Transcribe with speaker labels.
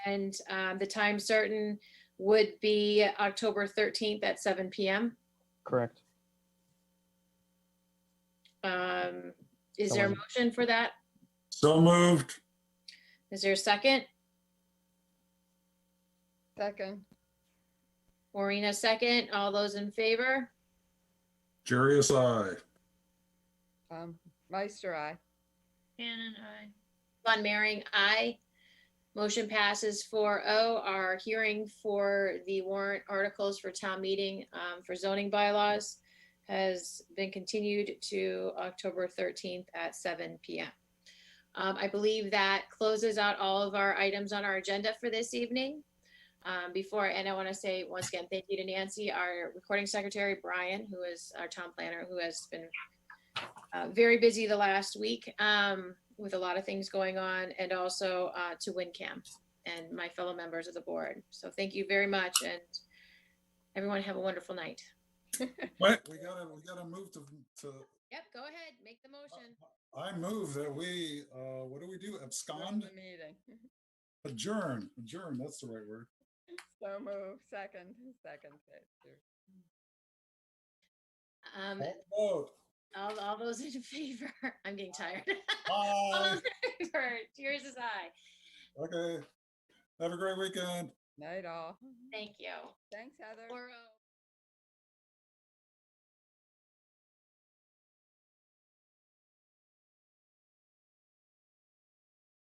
Speaker 1: And um, the time certain would be October 13th at 7 PM.
Speaker 2: Correct.
Speaker 1: Um, Is there a
Speaker 2: Someone-
Speaker 1: motion for that?
Speaker 3: So moved.
Speaker 1: Is there a second?
Speaker 4: Second,
Speaker 1: Maureen, a second. All those in favor?
Speaker 3: Jerry is I.
Speaker 4: um, Meister, I.
Speaker 5: Shannon, I.
Speaker 1: Von Mering, aye. Motion passes 4-0. Our hearing for the warrant articles for town meeting um, for zoning bylaws has been continued to October 13th at 7 PM. Um, I believe that closes out all of our items on our agenda for this evening. Um, Before, and I want to say once again, thank you to Nancy, our recording secretary, Brian, who is our town planner, who has been uh, very busy the last week um, with a lot of things going on and also uh, to WinCam and my fellow members of the board. So thank you very much and everyone have a wonderful night.
Speaker 3: Wait, we gotta, we gotta move to, to,
Speaker 1: Yep, go ahead, make the motion.
Speaker 3: I move that we, uh, what do we do?
Speaker 4: Adjourn
Speaker 3: Abscond?
Speaker 4: the Meeting.
Speaker 3: Adjourn, adjourn, that's the right word.
Speaker 4: So move, second, second. second.
Speaker 1: Um,
Speaker 3: Vote.
Speaker 1: all, all those in favor, I'm getting tired. All
Speaker 3: Aye.
Speaker 1: those in favor, Yours is I.
Speaker 3: Okay. Have a great weekend.
Speaker 4: Night all.
Speaker 1: Thank you.
Speaker 4: Thanks, Heather.
Speaker 1: Four oh.